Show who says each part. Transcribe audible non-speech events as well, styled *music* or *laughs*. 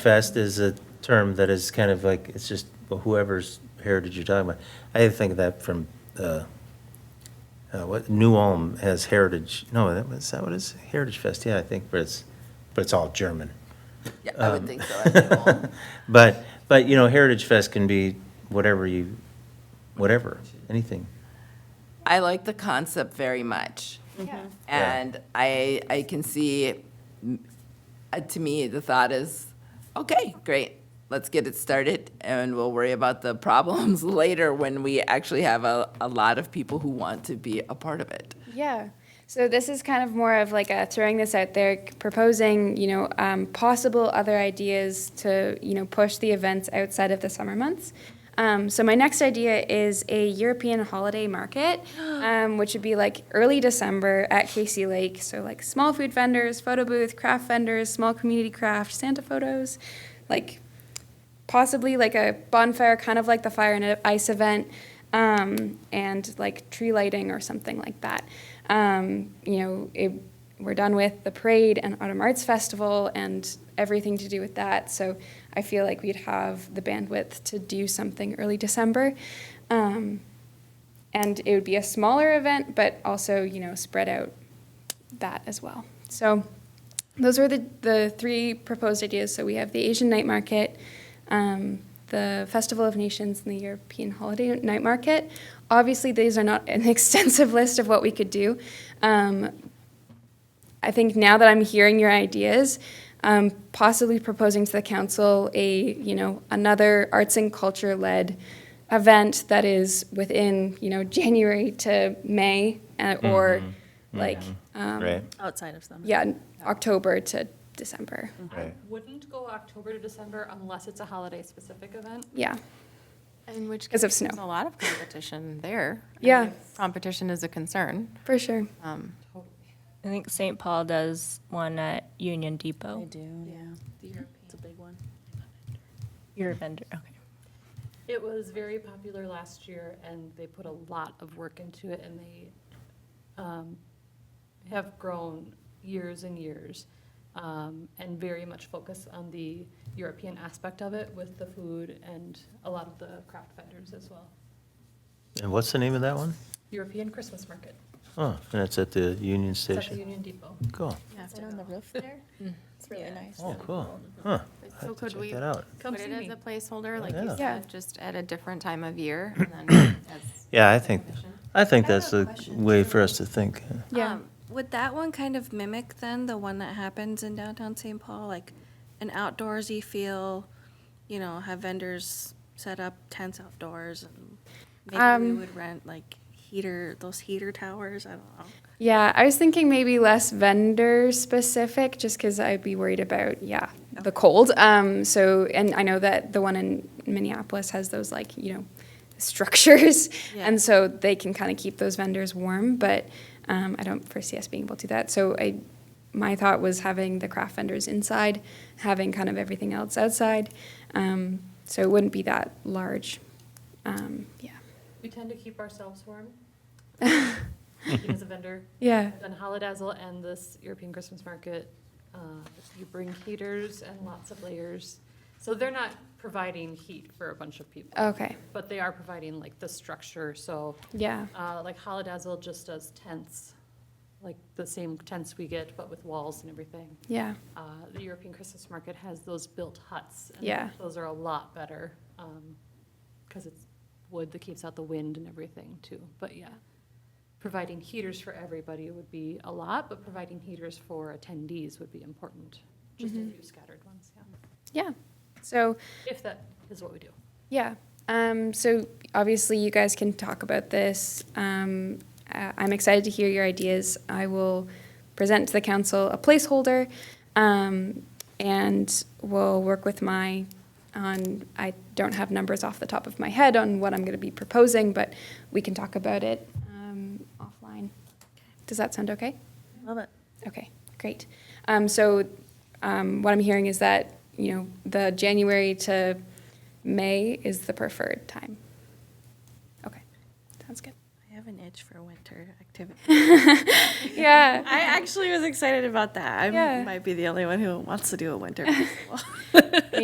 Speaker 1: Fest is a term that is kind of like, it's just whoever's heritage you're talking about. I had to think of that from, uh, uh, what, New Ulm has Heritage, no, that was, is that what it is? Heritage Fest, yeah, I think, but it's, but it's all German.
Speaker 2: Yeah, I would think so. I don't know.
Speaker 1: But, but, you know, Heritage Fest can be whatever you, whatever, anything.
Speaker 2: I like the concept very much.
Speaker 3: Mm-hmm.
Speaker 2: And I, I can see, mm, uh, to me, the thought is, okay, great, let's get it started, and we'll worry about the *laughs* problems later when we actually have a, a lot of people who want to be a part of it.
Speaker 3: Yeah. So this is kind of more of like a throwing this out there, proposing you know um, possible other ideas to you know push the events outside of the summer months. Um, so my next idea is a European holiday market, um, which would be like early December at Casey Lake. So like small food vendors, photo booth, craft vendors, small community craft, Santa photos, like possibly like a bonfire, kind of like the fire and ice event, um, and like tree lighting or something like that. Um, you know, it, we're done with the parade and Autumn Arts Festival and everything to do with that. So I feel like we'd have the bandwidth to do something early December. Um, and it would be a smaller event, but also, you know, spread out that as well. So those were the, the three proposed ideas. So we have the Asian night market, um, the Festival of Nations, and the European holiday night market. Obviously, these are not an *laughs* extensive list of what we could do. Um, I think now that I'm hearing your ideas, um, possibly proposing to the council a, you know, another arts and culture led event that is within, you know, January to May uh, or like, um,
Speaker 1: Right,
Speaker 4: Outside of summer.
Speaker 3: yeah, October to December.
Speaker 5: um,
Speaker 1: right.
Speaker 6: Wouldn't go October to December unless it's a holiday-specific event.
Speaker 3: Yeah.
Speaker 5: In which
Speaker 3: 'Cause of
Speaker 5: case,
Speaker 3: snow.
Speaker 5: There's a lot of competition there. I mean,
Speaker 3: Yeah.
Speaker 5: if Competition is a concern.
Speaker 3: For sure.
Speaker 5: um,
Speaker 7: I think St. Paul does one at Union Depot.
Speaker 4: do, yeah. It's a big one.
Speaker 7: Your vendor, okay.
Speaker 6: It was very popular last year, and they put a lot of work into it, and they um, have grown years and years, um, and very much focus on the European aspect of it with the food and a lot of the craft vendors as well.
Speaker 1: And what's the name of that one?
Speaker 6: European Christmas Market,
Speaker 1: Oh, and it's at the Union
Speaker 6: it's at the
Speaker 1: Station.
Speaker 6: Union Depot.
Speaker 1: Cool.
Speaker 4: Is it on the roof there? It's really nice.
Speaker 1: Oh, cool. Huh.
Speaker 5: But
Speaker 1: I'll
Speaker 5: Mm. So
Speaker 1: have to
Speaker 5: could
Speaker 1: check
Speaker 5: we
Speaker 1: that out.
Speaker 6: Come
Speaker 5: put
Speaker 6: see
Speaker 5: it as
Speaker 6: me.
Speaker 5: a placeholder, like
Speaker 1: Yeah.
Speaker 5: you
Speaker 3: Yeah.
Speaker 5: said, just at a different time of year?
Speaker 3: *clears throat*
Speaker 5: and then as
Speaker 1: Yeah, I think,
Speaker 5: competition?
Speaker 1: I think
Speaker 8: I have
Speaker 1: that's
Speaker 8: a
Speaker 1: the
Speaker 8: question,
Speaker 1: way
Speaker 8: too.
Speaker 1: for us to think.
Speaker 3: Yeah.
Speaker 4: Um, Would that one kind of mimic then the one that happens in downtown St. Paul, like an outdoorsy feel? You know, have vendors set up tents outdoors and maybe
Speaker 3: Um,
Speaker 4: we would rent like heater, those heater towers, I don't know.
Speaker 3: Yeah, I was thinking maybe less vendor specific, just because I'd be worried about yeah the cold. Um, so and I know that the one in Minneapolis has those like you know *laughs* structures,
Speaker 4: Yeah.
Speaker 3: and so they can kind of keep those vendors warm. But um, I don't foresee us being able to do that. So I, my thought was having the craft vendors inside, having kind of everything else outside. Um, so it wouldn't be that large. Um, yeah.
Speaker 6: We tend to keep ourselves warm. Even as a vendor.
Speaker 3: Yeah.
Speaker 6: Then Holodazzle and this European Christmas market, uh, you bring heaters and lots of layers. So they're not providing heat for a bunch of people.
Speaker 3: Okay.
Speaker 6: But they are providing like the structure, so
Speaker 3: Yeah.
Speaker 6: uh, like Holodazzle just does tents, like the same tents we get, but with walls and everything.
Speaker 3: Yeah.
Speaker 6: Uh, The European Christmas market has those built huts. and
Speaker 3: Yeah.
Speaker 6: Those are a lot better, because it's wood that keeps out the wind and everything too. But yeah, providing heaters for everybody would be a lot, but providing heaters for attendees would be important. Just a few scattered ones, yeah.
Speaker 3: Yeah. So.
Speaker 6: If that is what we do.
Speaker 3: Yeah. Um, so obviously, you guys can talk about this. Um, uh, I'm excited to hear your ideas. I will present to the council a placeholder, um, and we'll work with my. On I don't have numbers off the top of my head on what I'm going to be proposing, but we can talk about it um, offline. Does that sound okay?
Speaker 4: Love it.
Speaker 3: Okay, great. Um, so, um, what I'm hearing is that, you know, the January to May is the preferred time. Okay, sounds good.
Speaker 4: I have a an itch for winter activity.
Speaker 3: *laughs* Yeah.
Speaker 4: I actually was excited about that. I
Speaker 3: Yeah. *laughs*
Speaker 4: might be the only one who wants to do a winter festival.